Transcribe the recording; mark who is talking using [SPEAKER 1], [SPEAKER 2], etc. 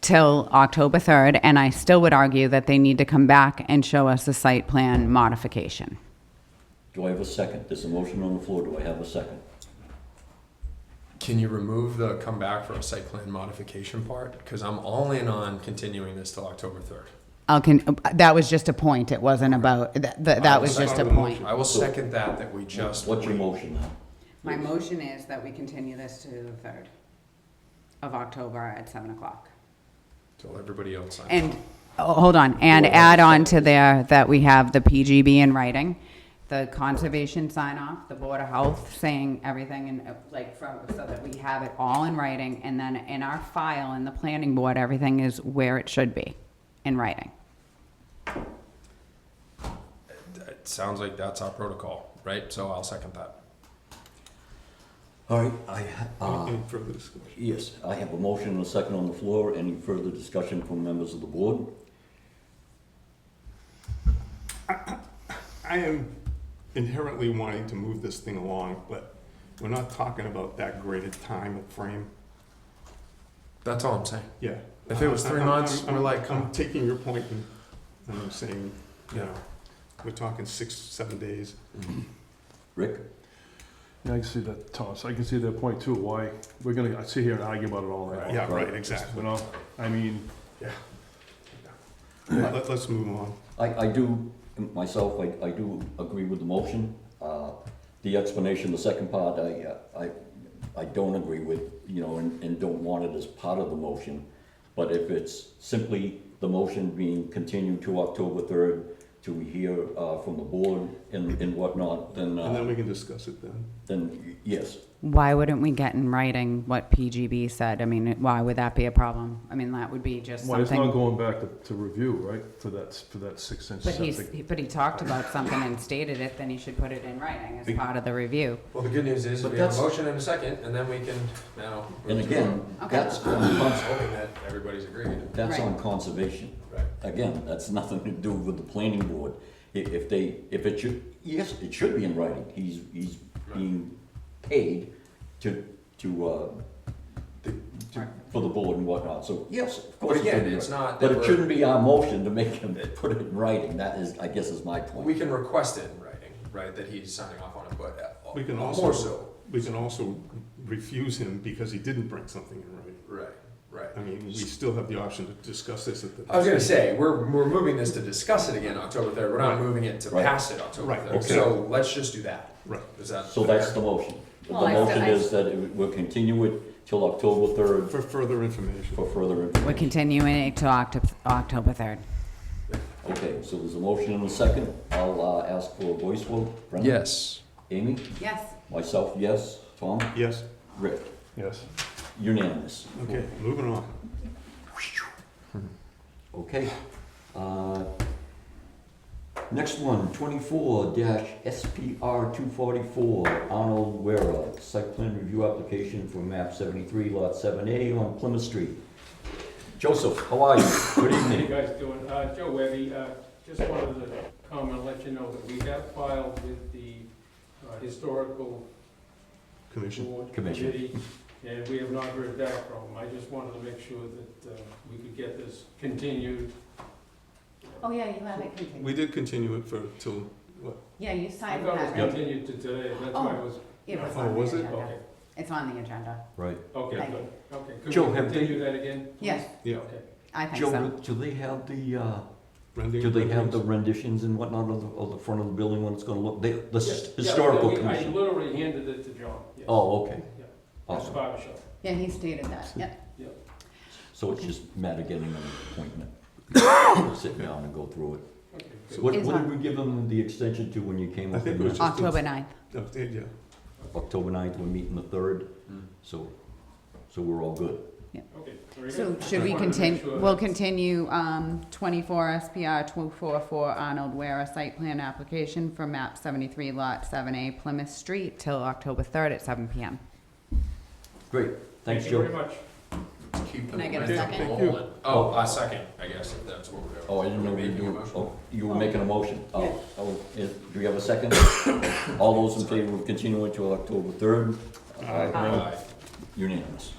[SPEAKER 1] till October 3rd, and I still would argue that they need to come back and show us the site plan modification.
[SPEAKER 2] Do I have a second? There's a motion on the floor. Do I have a second?
[SPEAKER 3] Can you remove the come back for a site plan modification part? Because I'm all in on continuing this till October third.
[SPEAKER 1] I'll con- that was just a point, it wasn't about, that, that that was just a point.
[SPEAKER 3] I will second that, that we just.
[SPEAKER 2] What's your
[SPEAKER 3] wait.
[SPEAKER 2] motion now?
[SPEAKER 1] My motion is that we continue this to the 3rd of October at 7 o'clock.
[SPEAKER 3] Till everybody else signs.
[SPEAKER 1] And, oh, hold on, and add on to there that we have the PGB in writing, the conservation sign off, the Board of Health saying everything and uh, like from, so that we have it all in writing. And then in our file in the planning board, everything is where it should be, in writing.
[SPEAKER 3] It sounds like that's our protocol, right? So I'll second that.
[SPEAKER 2] All right, I, ha- uh,
[SPEAKER 4] Any further discussion?
[SPEAKER 2] yes, I have a motion and a second on the floor. Any further discussion from members of the board?
[SPEAKER 4] I am inherently wanting to move this thing along, but we're not talking about that great a time frame.
[SPEAKER 3] That's all I'm saying.
[SPEAKER 4] Yeah. Uh,
[SPEAKER 3] If it was three
[SPEAKER 4] I'm- I'm-
[SPEAKER 3] months,
[SPEAKER 4] I'm-
[SPEAKER 3] we're like- uh.
[SPEAKER 4] I'm taking your point and and I'm saying, you know, we're talking six, seven days.
[SPEAKER 2] Rick?
[SPEAKER 5] Yeah, I can see that, Thomas, I can see that point too, why, we're gonna sit here and argue about it all night long,
[SPEAKER 4] Yeah, right, exactly.
[SPEAKER 5] you know? I mean,
[SPEAKER 4] Yeah. Let, let's move on.
[SPEAKER 2] I, I do, myself, I, I do agree with the motion. Uh, The explanation, the second part, I, uh, I, I don't agree with, you know, and, and don't want it as part of the motion. But if it's simply the motion being continued to October third to hear, uh, from the board and, and whatnot, then,
[SPEAKER 4] And then
[SPEAKER 2] uh,
[SPEAKER 4] we can discuss it then.
[SPEAKER 2] then yes.
[SPEAKER 1] Why wouldn't we get in writing what PGB said? I mean, why would that be a problem? I mean, that would be just
[SPEAKER 5] why, it's not
[SPEAKER 1] something.
[SPEAKER 5] going back to, to review, right, for that, for that six inch
[SPEAKER 1] But he's,
[SPEAKER 5] septic.
[SPEAKER 1] but he talked about something and stated it, then he should put it in writing as part of the review.
[SPEAKER 3] Well, the good news is
[SPEAKER 2] But
[SPEAKER 3] we have a
[SPEAKER 2] that's-
[SPEAKER 3] motion and a second, and then we can now.
[SPEAKER 2] And again,
[SPEAKER 1] Okay.
[SPEAKER 2] that's, on
[SPEAKER 3] I'm
[SPEAKER 2] cons-
[SPEAKER 3] hoping that everybody's agreed.
[SPEAKER 2] that's on
[SPEAKER 1] Right.
[SPEAKER 2] conservation.
[SPEAKER 3] Right.
[SPEAKER 2] Again, that's nothing to do with the planning board. I- If they, if it should, yes, it should be in writing. He's, he's being paid to, to, uh, to- to- for the board and whatnot, so yes, of course.
[SPEAKER 3] But
[SPEAKER 2] it should
[SPEAKER 3] again,
[SPEAKER 2] be in
[SPEAKER 3] it's
[SPEAKER 2] writing.
[SPEAKER 3] not that
[SPEAKER 2] But it
[SPEAKER 3] we're-
[SPEAKER 2] shouldn't be our motion to make him put it in writing. That is, I guess is my
[SPEAKER 3] We
[SPEAKER 2] point.
[SPEAKER 3] can request it in writing, right, that he's signing off on it, but uh,
[SPEAKER 4] We can
[SPEAKER 3] more
[SPEAKER 4] also,
[SPEAKER 3] so.
[SPEAKER 4] we can also refuse him because he didn't bring something in writing.
[SPEAKER 3] Right, right.
[SPEAKER 4] I mean, we still have the option to discuss this at the.
[SPEAKER 3] I was gonna say, we're, we're moving this to discuss it again October third, we're not moving it to
[SPEAKER 2] Right.
[SPEAKER 3] pass it October
[SPEAKER 4] Right,
[SPEAKER 3] third,
[SPEAKER 4] okay.
[SPEAKER 3] so let's just do that.
[SPEAKER 4] Right.
[SPEAKER 3] Is that?
[SPEAKER 2] So that's the motion. The
[SPEAKER 1] Well, I said-
[SPEAKER 2] motion
[SPEAKER 1] I-
[SPEAKER 2] is that it- we'll continue it till October third
[SPEAKER 4] For further information.
[SPEAKER 2] for further
[SPEAKER 1] We're
[SPEAKER 2] information.
[SPEAKER 1] continuing it to October, October 3rd.
[SPEAKER 2] Okay, so there's a motion and a second. I'll, uh, ask for a voice vote. Brendan?
[SPEAKER 3] Yes.
[SPEAKER 2] Amy?
[SPEAKER 1] Yes.
[SPEAKER 2] Myself, yes. Tom?
[SPEAKER 4] Yes,
[SPEAKER 2] Rick?
[SPEAKER 5] Yes.
[SPEAKER 2] Unanimous.
[SPEAKER 4] okay, moving on.
[SPEAKER 2] Okay. Uh, Next one, twenty-four dash SPR two forty-four, Arnold Wera, site plan review application for map seventy-three, lot seven A on Plymouth Street. Joseph, how are you? Good
[SPEAKER 6] How you
[SPEAKER 2] evening.
[SPEAKER 6] guys doing? Uh, Joe Webby, uh, just wanted to come and let you know that we have filed with the uh, historical
[SPEAKER 4] Commission.
[SPEAKER 6] board
[SPEAKER 2] Commission.
[SPEAKER 6] committee, and we have not heard back from them. I just wanted to make sure that uh, we could get this continued.
[SPEAKER 1] Oh, yeah, you have it continued.
[SPEAKER 4] We did continue it for, till, what,
[SPEAKER 1] Yeah, you
[SPEAKER 6] I
[SPEAKER 1] signed
[SPEAKER 6] thought it
[SPEAKER 1] that,
[SPEAKER 6] was
[SPEAKER 1] right?
[SPEAKER 6] continued to today, that's why I was,
[SPEAKER 1] It was
[SPEAKER 4] Oh,
[SPEAKER 1] on the
[SPEAKER 4] was it?
[SPEAKER 1] agenda.
[SPEAKER 6] okay,
[SPEAKER 1] It's on the agenda.
[SPEAKER 2] Right.
[SPEAKER 6] okay,
[SPEAKER 1] Thank
[SPEAKER 6] good,
[SPEAKER 1] you.
[SPEAKER 6] okay. Could
[SPEAKER 2] Joe,
[SPEAKER 6] we
[SPEAKER 2] have they-
[SPEAKER 6] continue that again? please?
[SPEAKER 1] Yes,
[SPEAKER 4] yeah,
[SPEAKER 6] Okay.
[SPEAKER 1] I think
[SPEAKER 2] Joe,
[SPEAKER 1] so.
[SPEAKER 2] do they have the, uh,
[SPEAKER 4] rendering?
[SPEAKER 2] do they have the renditions and whatnot of the, of the front of the building, what it's gonna look, the, the
[SPEAKER 6] Yeah,
[SPEAKER 2] s-
[SPEAKER 6] yeah,
[SPEAKER 2] historical
[SPEAKER 6] we- I
[SPEAKER 2] commission?
[SPEAKER 6] literally handed it to John, yes.
[SPEAKER 2] Oh, okay.
[SPEAKER 6] Yeah. That's
[SPEAKER 2] Awesome.
[SPEAKER 6] barber shop.
[SPEAKER 1] Yeah, he stated that, yep.
[SPEAKER 2] So it's just a matter of getting an appointment, sit down and go through it.
[SPEAKER 6] Okay, good.
[SPEAKER 4] So-
[SPEAKER 2] What,
[SPEAKER 1] Is
[SPEAKER 2] what
[SPEAKER 1] one.
[SPEAKER 2] did we give them the extension to when you came
[SPEAKER 4] I
[SPEAKER 2] up
[SPEAKER 4] think
[SPEAKER 2] with
[SPEAKER 4] it was
[SPEAKER 2] that?
[SPEAKER 4] Just
[SPEAKER 1] October 9th.
[SPEAKER 4] Oh, yeah, Yeah,
[SPEAKER 2] October ninth, we're meeting the third, so, so we're all good.
[SPEAKER 6] Okay, very good.
[SPEAKER 1] So
[SPEAKER 6] Just
[SPEAKER 1] should we
[SPEAKER 6] wanted to make
[SPEAKER 1] continue,
[SPEAKER 6] sure
[SPEAKER 1] we'll
[SPEAKER 6] that-
[SPEAKER 1] continue, um, twenty-four SPR two-four-four Arnold Ware site plan application for map seventy-three lot seven A Plymouth Street till October third at seven PM.
[SPEAKER 2] Great, thanks,
[SPEAKER 6] Thank you very
[SPEAKER 2] Joe.
[SPEAKER 6] much.
[SPEAKER 3] Keep
[SPEAKER 1] Can I get a
[SPEAKER 3] the
[SPEAKER 1] second?
[SPEAKER 3] ball
[SPEAKER 4] Thank you.
[SPEAKER 3] in. Oh, a second, I guess, if that's what we're doing.
[SPEAKER 2] Oh, I didn't know
[SPEAKER 3] We're
[SPEAKER 2] you
[SPEAKER 3] making a
[SPEAKER 2] were,
[SPEAKER 3] motion.
[SPEAKER 2] oh, you were making a motion. Oh, oh, is, do you have a second? All those in favor of continuing to October third?
[SPEAKER 3] Aye.
[SPEAKER 2] Unanimous.